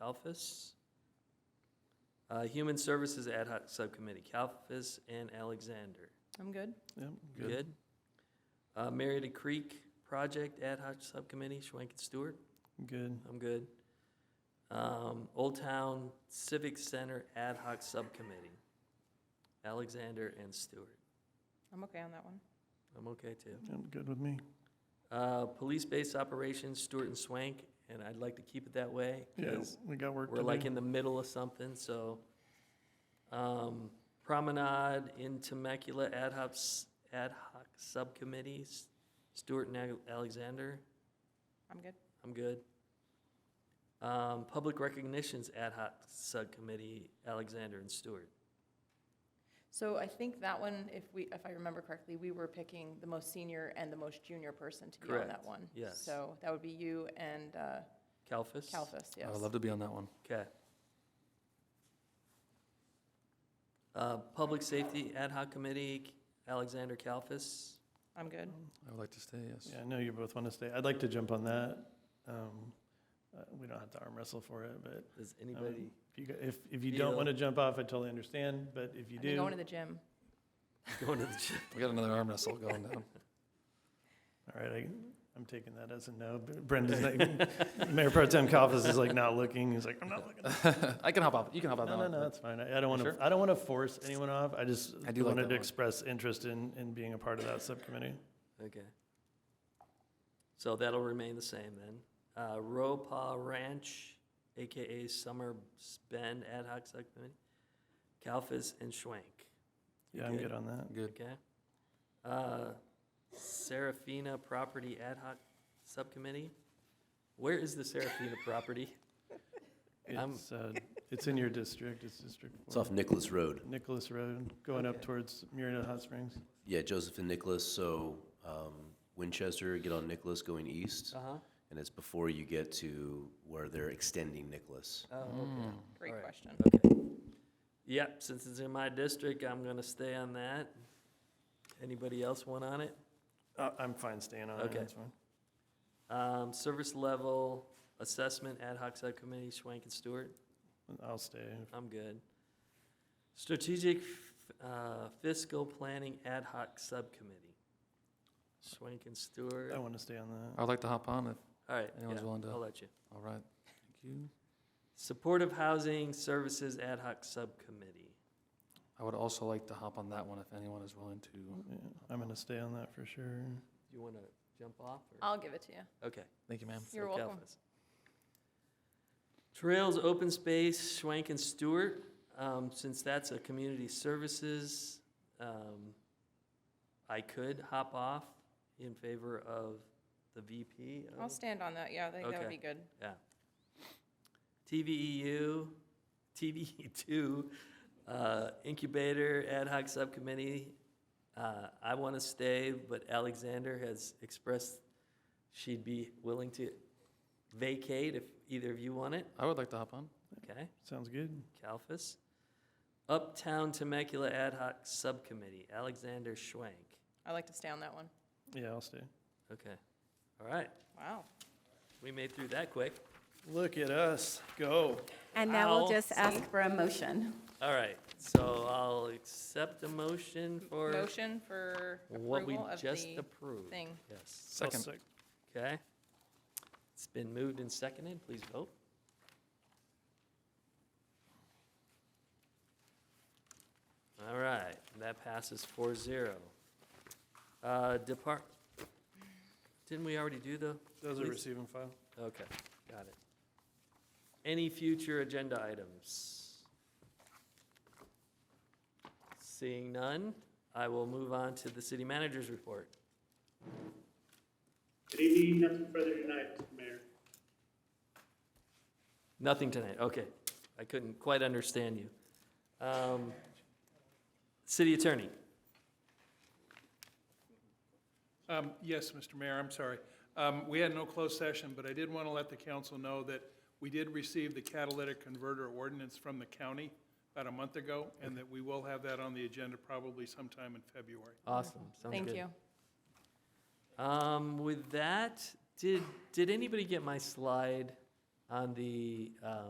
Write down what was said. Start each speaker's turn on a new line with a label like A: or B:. A: Kalfas. Uh, Human Services Ad Hoc Subcommittee, Kalfas and Alexander.
B: I'm good.
C: Yep, good.
A: Good. Uh, Merida Creek Project Ad Hoc Subcommittee, Schwank and Stewart.
C: Good.
A: I'm good. Um, Old Town Civic Center Ad Hoc Subcommittee, Alexander and Stewart.
B: I'm okay on that one.
A: I'm okay too.
C: Yep, good with me.
A: Uh, Police Base Operations, Stewart and Swank, and I'd like to keep it that way.
C: Yeah,
A: 'cause
C: we got work to
A: We're like
C: do.
A: in the middle of something, so. Um, Promenade in Temecula Ad Hoc, s- Ad Hoc Subcommittees, Stewart and Ale- Alexander,
B: I'm good.
A: I'm good. Um, Public Recognitions Ad Hoc Subcommittee, Alexander and Stewart.
B: So I think that one, if we, if I remember correctly, we were picking the most senior and the most junior person to be on
A: Correct.
B: that one.
A: Yes.
B: So that would be you and uh,
A: Kalfas?
B: Kalfas, yes.
C: I'd love to be on that one.
A: Okay. Uh, Public Safety Ad Hoc Committee, Alexander Kalfas.
B: I'm good.
D: I would like to stay, yes.
C: Um, Yeah, I know you both want to stay. I'd like to jump on that. Um, uh, We don't have to arm wrestle for it, but
A: Does
C: I
A: anybody,
C: mean, if you, g- if, if you
A: You
C: don't
A: know.
C: want to jump off, I totally understand, but if you
B: I've been going to
C: do,
B: the gym.
A: going to the gym?
D: We got another arm wrestle going down.
C: all right, I, I'm taking that as a no. B- Brenda's like, Mayor Pro Tem Coffis is like not looking. He's like, I'm not looking.
D: I can hop off, you can hop
C: No,
D: off that
C: no,
D: one.
C: no, that's fine. I I don't want to,
D: sure?
C: I don't want to force anyone off. I just
D: I do like
C: wanted
D: that
C: to
D: one.
C: express interest in, in being a part of that subcommittee.
A: Okay. So that'll remain the same then. Uh, Ropa Ranch, AKA Summer Spend Ad Hoc Subcommittee, Kalfas and Schwank. You
C: Yeah, I'm
A: good?
C: good on that.
D: Good.
A: Okay. Uh, Serafina Property Ad Hoc Subcommittee. Where is the Serafina property? I'm-
C: It's, uh, it's in your district. It's District
E: It's
C: Four.
E: off Nicholas Road.
C: Nicholas Road, going up
A: Okay.
C: towards Murrieta Hot Springs.
E: Yeah, Joseph and Nicholas, so um, Winchester, get on Nicholas going east,
A: Uh-huh.
E: and it's before you get to where they're extending Nicholas.
A: Oh, okay.
D: Mm.
B: Great
A: All right.
B: question.
A: Okay. Yep, since it's in my district, I'm gonna stay on that. Anybody else want on it?
C: Uh, I'm fine staying on it,
A: Okay.
C: that's fine.
A: Um, service level assessment ad hoc subcommittee, Schwank and Stewart,
C: I'll stay.
A: I'm good. Strategic, uh, fiscal planning ad hoc subcommittee, Schwank and Stewart.
C: I want to stay on that.
D: I would like to hop on if,
A: All right, yeah,
D: anyone's willing to-
A: I'll let you.
D: all right. Thank you.
A: Supportive housing services ad hoc subcommittee,
D: I would also like to hop on that one if anyone is willing to.
C: Yeah, I'm going to stay on that for sure.
A: you wanna jump off or?
B: I'll give it to you.
A: Okay.
D: Thank you, ma'am.
B: You're
A: So
B: welcome.
A: Kalfas. Trails, open space, Schwank and Stewart, um, since that's a community services, um, I could hop off in favor of the VP. of
B: I'll stand on that. Yeah, I think that would
A: Okay.
B: be good.
A: TVEU, TVE E two, uh, incubator ad hoc subcommittee. Uh, I want to stay, but Alexander has expressed she'd be willing to vacate if either of you want it.
D: I would like to hop on.
A: Okay,
C: Sounds good.
A: Kalfas. Uptown Temecula Ad Hoc Subcommittee, Alexander Schwank.
B: I like to stay on that one.
C: Yeah, I'll stay.
A: Okay, all right,
B: Wow.
A: we made through that quick.
C: Look at us, go.
F: And now we'll
A: I'll
F: just ask for a motion.
A: All right, so I'll accept a motion for.
B: Motion for
A: What we
B: approval of
A: just
B: the
A: approved.
B: thing.
A: Yes,
C: I'll
D: Second.
C: sec-
A: okay. It's been moved and seconded, please vote. All right, that passes four zero. Uh, depart, didn't we already do the?
C: Those are
A: Please.
C: receiving file.
A: Okay, got it. Any future agenda items? Seeing none, I will move on to the city manager's report.
G: Good evening, nothing further tonight, Mr. Mayor.
A: Nothing tonight, okay. I couldn't quite understand you. Um, City attorney,
H: Um, Yes, Mr. Mayor, I'm sorry. Um, We had no closed session, but I did want to let the council know that we did receive the catalytic converter ordinance from the county about a month ago, and that we will have that on the agenda probably sometime in February.
A: awesome, sounds
B: Thank
A: good.
B: you.
A: Um, with that, did, did anybody get my slide on the, um,